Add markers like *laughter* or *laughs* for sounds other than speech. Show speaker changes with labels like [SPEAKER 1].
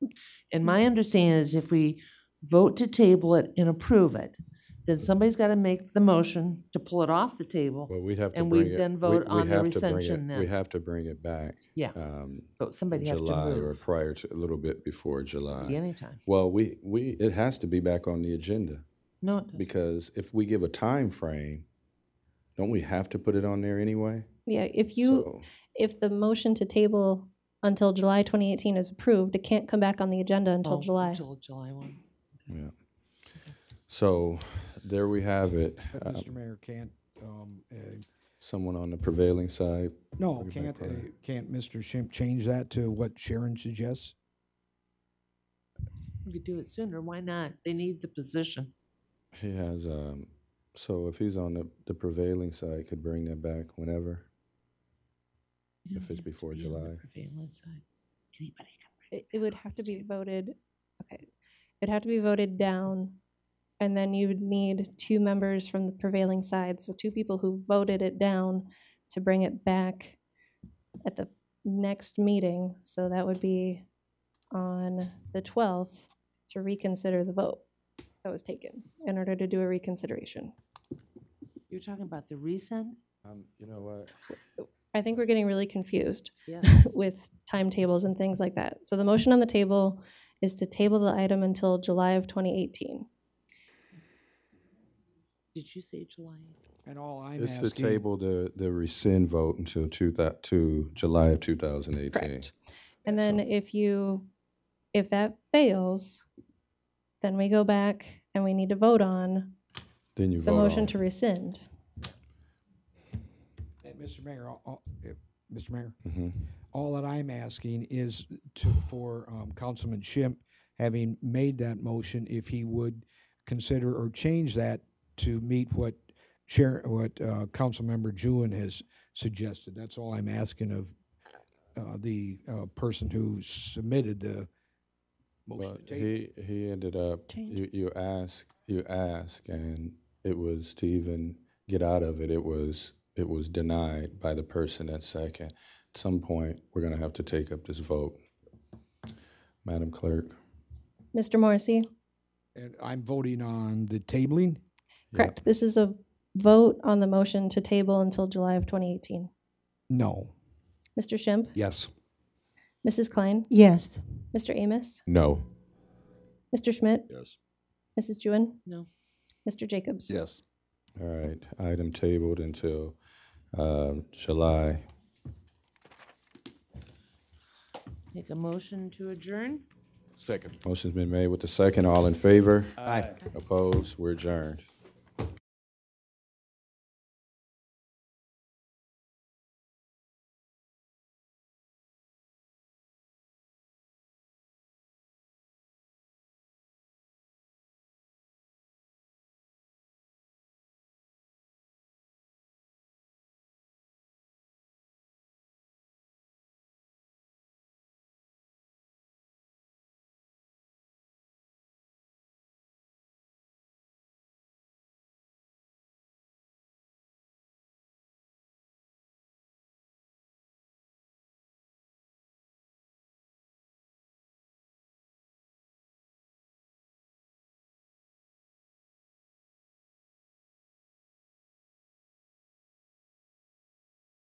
[SPEAKER 1] And
[SPEAKER 2] Mm-hmm.
[SPEAKER 1] my understanding is if we vote to table it and approve it, then somebody's gotta make the motion to pull it off the table.
[SPEAKER 2] Well, we'd have to
[SPEAKER 1] And we
[SPEAKER 2] bring it.
[SPEAKER 1] then
[SPEAKER 2] we-
[SPEAKER 1] vote
[SPEAKER 2] we
[SPEAKER 1] on the
[SPEAKER 2] have to bring
[SPEAKER 1] recension
[SPEAKER 2] it-
[SPEAKER 1] then.
[SPEAKER 2] We have to bring it back.
[SPEAKER 1] Yeah.
[SPEAKER 2] um,
[SPEAKER 1] But somebody has to
[SPEAKER 2] July or
[SPEAKER 1] move
[SPEAKER 2] prior to, a little bit before
[SPEAKER 1] at
[SPEAKER 2] July.
[SPEAKER 1] any time.
[SPEAKER 2] Well, we, we, it has to be back on the agenda
[SPEAKER 1] No, it doesn't.
[SPEAKER 2] because if we give a time frame, don't we have to put it on there anyway?
[SPEAKER 3] Yeah, if you,
[SPEAKER 2] So-
[SPEAKER 3] if the motion to table until July 2018 is approved, it can't come back on the agenda until
[SPEAKER 1] Oh,
[SPEAKER 3] July.
[SPEAKER 1] Until July one.
[SPEAKER 2] Yeah. So there we have it.
[SPEAKER 4] But
[SPEAKER 2] Um,
[SPEAKER 4] Mr. Mayor, can't, um, uh,
[SPEAKER 2] Someone on the prevailing side.
[SPEAKER 4] no,
[SPEAKER 2] Bring it back
[SPEAKER 4] can't, uh,
[SPEAKER 2] prior.
[SPEAKER 4] can't Mr. Schimpf change that to what Sharon suggests?
[SPEAKER 1] We could do it sooner, why not? They need the position.
[SPEAKER 2] He has, um, so if he's on the, the prevailing side, could bring that back whenever.
[SPEAKER 1] You don't
[SPEAKER 2] If it's
[SPEAKER 1] have to
[SPEAKER 2] before
[SPEAKER 1] be on the
[SPEAKER 2] July.
[SPEAKER 1] prevailing side. Anybody can bring
[SPEAKER 3] It it would have to be voted, okay, it'd have to be voted down, and then you would need two members from the prevailing side, so two people who voted it down to bring it back at the next meeting, so that would be on the 12th to reconsider the vote that was taken in order to do a reconsideration.
[SPEAKER 1] You're talking about the resend?
[SPEAKER 2] Um, you know what?
[SPEAKER 3] I think we're getting really confused.
[SPEAKER 1] Yes.
[SPEAKER 3] with timetables and things like that. So the motion on the table is to table the item until July of 2018.
[SPEAKER 1] *laughs* Did you say July?
[SPEAKER 4] And all I'm
[SPEAKER 2] It's to
[SPEAKER 4] asking,
[SPEAKER 2] table the, the rescind vote until two thou, to July of two thousand eighteen.
[SPEAKER 3] Correct. And then
[SPEAKER 2] So-
[SPEAKER 3] if you, if that fails, then we go back and we need to vote on
[SPEAKER 2] Then you
[SPEAKER 3] the
[SPEAKER 2] vote
[SPEAKER 3] motion
[SPEAKER 2] on.
[SPEAKER 3] to rescind.
[SPEAKER 4] and Mr. Mayor, all- all- if- Mr. Mayor,
[SPEAKER 2] Mhm.
[SPEAKER 4] all that I'm asking is to, for, um, Councilman Schimpf, having made that motion, if he would consider or change that to meet what Sharon, what, uh, Councilmember Jewin has suggested. That's all I'm asking of, uh, the, uh, person who submitted the motion
[SPEAKER 2] Well,
[SPEAKER 4] to table.
[SPEAKER 2] he, he ended up, you, you ask, you ask, and it was to even get out of it, it was, it was denied by the person at second. At some point, we're gonna have to take up this vote. Madam Clerk?
[SPEAKER 3] Mr. Morrissey?
[SPEAKER 4] And I'm voting on the tabling.
[SPEAKER 3] Correct. This is a vote on the motion to table until July of 2018.
[SPEAKER 4] No.
[SPEAKER 3] Mr. Schimpf?
[SPEAKER 4] Yes.
[SPEAKER 3] Mrs. Klein?
[SPEAKER 5] Yes.
[SPEAKER 3] Mr. Amos?
[SPEAKER 2] No.
[SPEAKER 3] Mr. Schmidt?
[SPEAKER 2] Yes.
[SPEAKER 3] Mrs. Jewin?
[SPEAKER 1] No.
[SPEAKER 3] Mr. Jacobs?
[SPEAKER 4] Yes.
[SPEAKER 2] All right, item tabled until, uh, July.
[SPEAKER 1] Make a motion to adjourn?
[SPEAKER 2] Motion's been made with the second, all in favor? Aye. Opposed, we're adjourned.